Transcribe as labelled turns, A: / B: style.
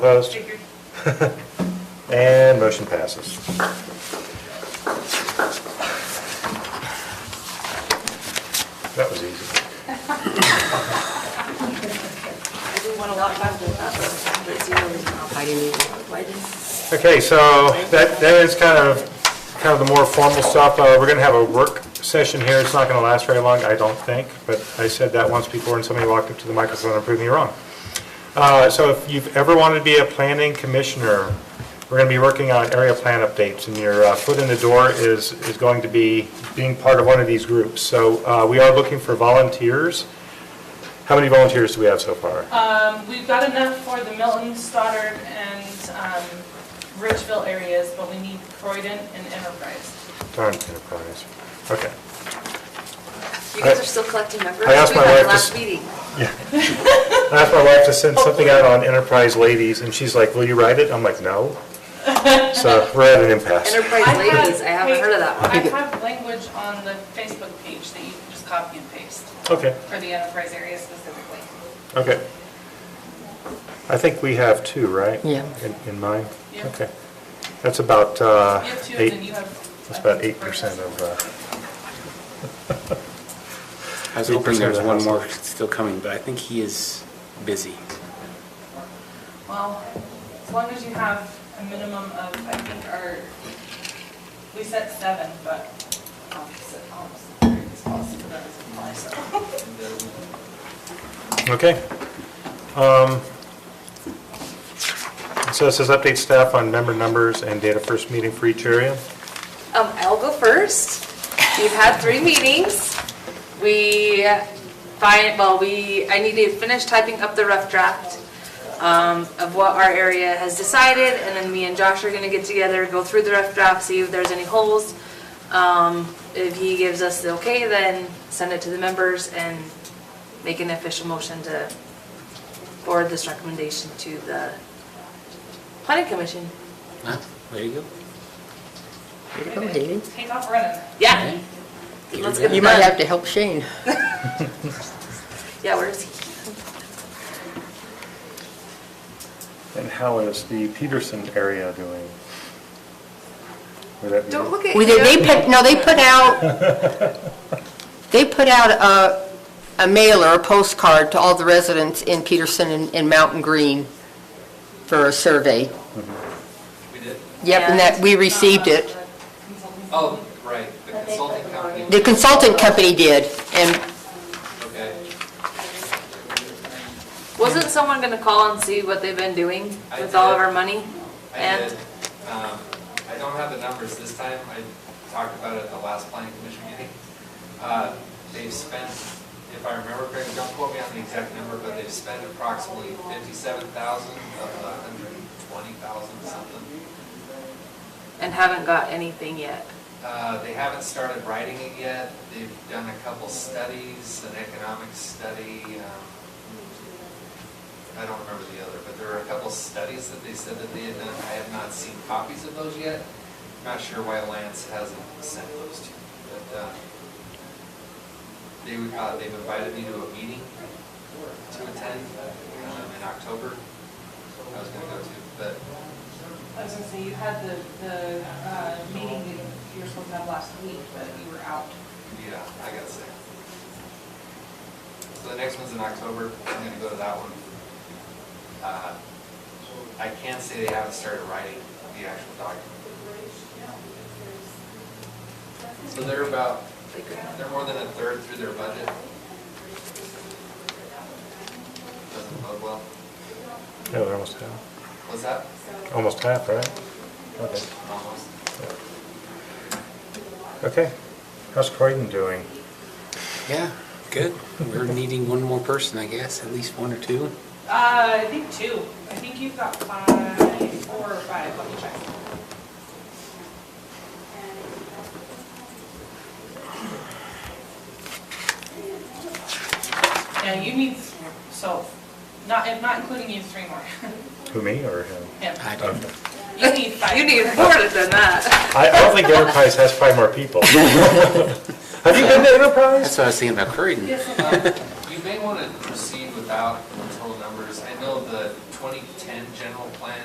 A: Opposed? And motion passes. That was easy.
B: I do want a lot of people, but zero is not fighting me. Why didn't-
A: Okay, so that, that is kind of, kind of the more formal stuff. Uh, We're going to have a work session here. It's not going to last very long, I don't think, but I said that once before and somebody walked up to the microphone and proved me wrong. Uh, So if you've ever wanted to be a planning commissioner, we're going to be working on area plan updates, and your uh, foot in the door is, is going to be being part of one of these groups. So uh, we are looking for volunteers. How many volunteers do we have so far?
C: Um, we've got enough for the Milton, Stoddard, and, um, Ridgeville areas, but we need Croydon and Enterprise.
A: Darn enterprise. Okay.
B: You guys are still collecting members?
A: I asked my
B: We
A: wife
B: had a
A: to
B: last
A: s-
B: meeting.
A: I asked my wife to send something out on Enterprise Ladies, and she's like, will you write it? I'm like, no. So we're at an impasse.
B: Enterprise Ladies, I haven't heard of that one.
C: I have language on the Facebook page that you can just copy and paste
A: Okay,
C: for the Enterprise area specifically.
A: okay. I think we have two, right?
D: Yeah.
A: In- In mine?
C: Yeah.
A: Okay. That's about uh,
C: You have two, and then
A: eight,
C: you have.
A: that's about eight percent of, uh,
E: I was
A: Eight
E: hoping there
A: percent of
E: was
A: the
E: one
A: household.
E: more still coming, but I think he is busy.
C: Well, as long as you have a minimum of, I think, our, we set seven, but opposite, opposite, it's possible that doesn't apply, so.
A: okay. Um, So it says update staff on member numbers and data first meeting for each area.
B: Um, I'll go first. We've had three meetings. We find, well, we, I need to finish typing up the rough draft um, of what our area has decided, and then me and Josh are gonna get together, go through the rough draft, see if there's any holes. Um, If he gives us the okay, then send it to the members and make an official motion to forward this recommendation to the planning commission.
E: Huh? There you go.
D: Here you go, Haley.
C: Take off running.
B: Yeah, let's get it
D: You might
B: done.
D: have to help Shane.
B: Yeah, where is he?
A: And how is the Peterson area doing? Would that be-
B: Don't look at
D: Well, they- they put, no, they put out, they put out a, a mailer, a postcard to all the residents in Peterson and, and Mountain Green for a survey.
F: We did?
D: Yep, and that, we received it.
F: Oh, right, the consulting company,
D: The consultant company did, and
F: okay.
B: Wasn't someone gonna call and see what they've been doing
F: I
B: with all of
F: did.
B: our money?
F: I
B: And-
F: did, um, I don't have the numbers this time, I talked about it at the last planning commission meeting. Uh, They've spent, if I remember correctly, don't quote me on the exact number, but they've spent approximately fifty-seven thousand of the hundred and twenty thousand something.
B: And haven't got anything yet.
F: Uh, They haven't started writing it yet. They've done a couple studies, an economic study. um, I don't remember the other, but there were a couple studies that they said that they had done. I have not seen copies of those yet. Not sure why Lance hasn't sent those to me, but uh, they, uh, they've invited me to a meeting to attend um, in October. I was going to go to, but
C: I was gonna say, you had the, the, uh, meeting that you were supposed to have last week, but you were out.
F: Yeah, I got sick. So the next one's in October, I'm gonna go to that one. Uh, I can not say they haven't started writing the actual document. So they're about, they're more than a third through their budget. Doesn't bode well.
A: No, they're almost half,
F: Was that
A: almost half, right? Okay.
F: almost?
A: Okay. How's Croydon doing?
E: Yeah, good. We're needing one more person, I guess, at least one or two.
C: Uh, I think two. I think you've got five, four or five, let me check. Yeah, you need, so, not, if not including you, three more.
A: Who, me or him?
C: Him.
E: I don't
A: Okay.
C: You need five.
B: You need
C: more.
B: more than that.
A: I I don't think Enterprise has five more people. Have you been to Enterprise?
E: That's what I was thinking about Croydon.
C: Yes, I know.
F: Uh, You you may want to proceed without total numbers. I know the 2010 general plan